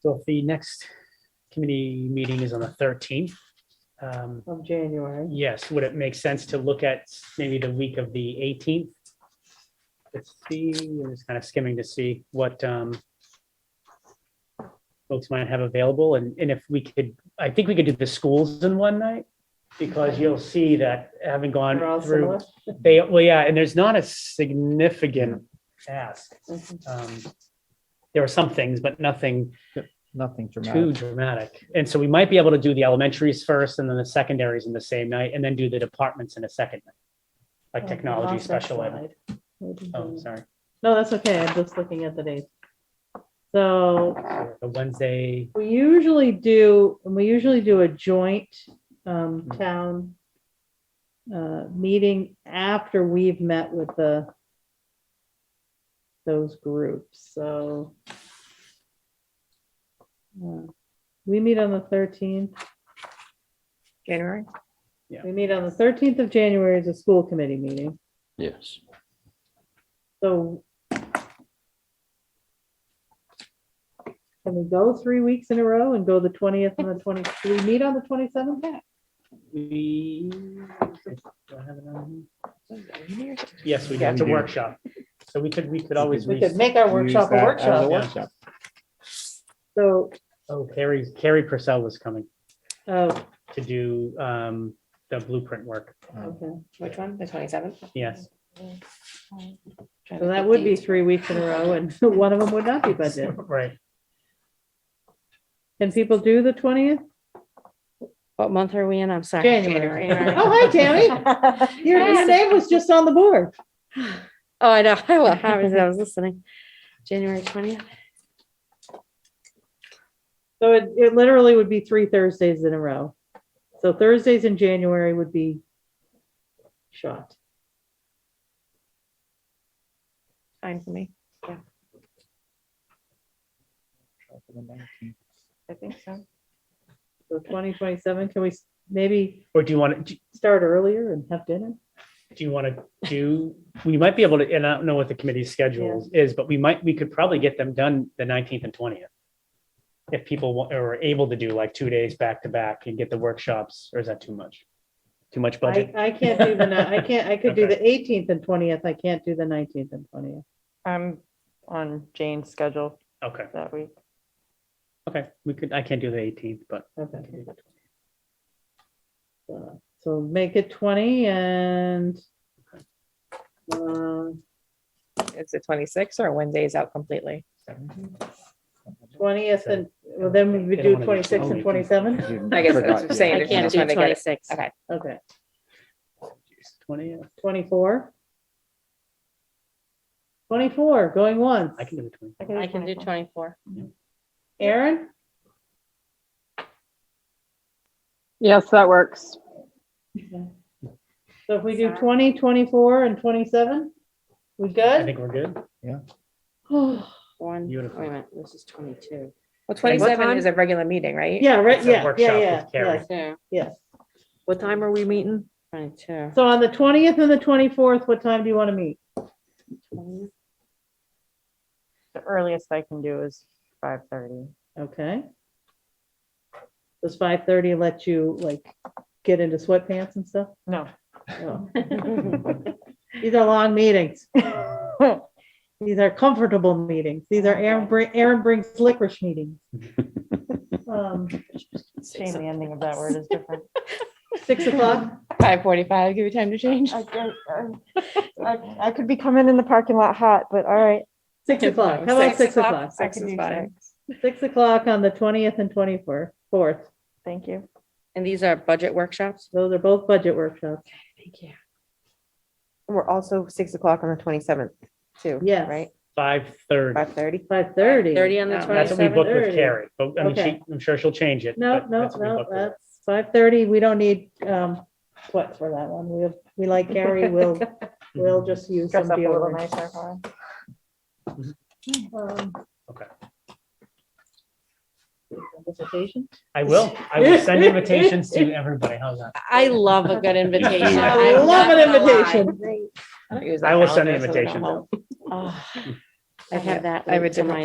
So if the next committee meeting is on the thirteenth, um, of January. yes, would it make sense to look at maybe the week of the eighteenth? Let's see, I'm just kind of skimming to see what, um, folks might have available and, and if we could, I think we could do the schools in one night because you'll see that having gone They're all through, similar. they, well, yeah, and there's not a significant ask. Mhm. Um, There are some things, but nothing Nothing too dramatic. dramatic. And so we might be able to do the elementaries first and then the secondaries in the same night and then do the departments in a second. night, Like Oh, technology, lost special that ed. slide. What did Oh, you- sorry. No, that's okay. I'm just looking at the dates. So The Wednesday, we usually do, and we usually do a joint um, town uh, meeting after we've met with the those groups, so. uh, We meet on the thirteenth. January. We meet on the thirteenth of January as a school committee meeting, Yes. so. Can we go three weeks in a row and go the twentieth and the twenty, do we meet on the twenty-seventh? we. do I have it on here? January. Yes, we do. Yeah, It's a we do. workshop. So we could, we could always. We re- could make our Use workshop a that as yeah. workshop, so, Oh, Carrie, Carrie Purcell was coming oh, to do um, the blueprint work. Um, okay, Which one? The twenty-seventh? Yes. so that would be three weeks in a row, and one of them would not be budget. Right. Can people do the twentieth? What month are we in? I'm sorry. January. January. Oh, hi, Tammy. Your your Yes. name was just on the board. Oh, I know. I was, I was listening. January twentieth. So it, it literally would be three Thursdays in a row. So Thursdays in January would be shot. Fine for me. I think so. So twenty twenty-seven, can we s- maybe Or do you want to, start earlier and have dinner? do you want to do, we might be able to, and I don't know what the committee's schedule is, but we might, we could probably get them done the nineteenth and twentieth. If people wa- are able to do like two days back to back and get the workshops, or is that too much? Too much I, budget? I can't do the, ni- I can't, I could do the eighteenth and twentieth, I can't do the nineteenth and twentieth. Um, I'm on Jane's schedule Okay, that week. okay, we could, I can't do the eighteenth, but Okay. Uh, So make it twenty and uh, It's the twenty-sixth or one day is out completely. twentieth and, well, then we would do twenty-six and twenty-seven, I guess that's what I'm saying. I Just can't do wanted to get it. twenty-six. Okay. okay, twentieth, twenty-four. Twenty-four, going once. I can do the twentieth. I can do twenty-four. Aaron, Yes, that works. so if we do Sorry. 20, 24, and twenty-seven, we I good? think we're good. One, wait a Beautiful. minute, this is twenty-two. Well, time? twenty-seven is a regular meeting, right? Yeah, right, It's a yeah, workshop yeah, with yeah, Carrie. yeah, Yeah. yeah. What time are we meeting? Twenty-two. So on the twentieth and the twenty-fourth, what time do you want to meet? The earliest I can do is five thirty. Okay. Does five thirty let you like get into sweatpants and stuff? No. No. These are long meetings. These are comfortable meetings. These are Aaron, bri- Aaron brings licorice meetings. Um, Shame the ending of that word is different. Six o'clock? Five forty-five, give you time to change. I can- I I could be coming in the parking lot hot, but all right. Six o'clock. How about six o'clock? I Six can is do fine. six. Six o'clock on the twentieth and twenty-fourth, fourth. Thank you. And these are budget workshops? Those are both budget workshops. Thank you. We're also six o'clock on the twenty-seventh too. Yes. Right, Five thirty, five thirty? Five thirty. Thirty on the Um, that's what we booked twenty-seventh? with Carrie, 27:30. but I mean, she, Okay. I'm sure she'll change it. No, but no, that's what we no, booked with. that's five thirty. We don't need, um, sweat for that one. We, we like Gary, we'll, we'll Mm-hmm. just use some Dress up a little deodorant. nicer for her. Um, Okay. Dissertation? I will, I will send invitations to everybody, how's that? I love a good invitation. I I'm love not an gonna lie. invitation. I don't use I that will send an calendar, so we don't invitation. help. Oh, I Okay, have that I have a linked in different my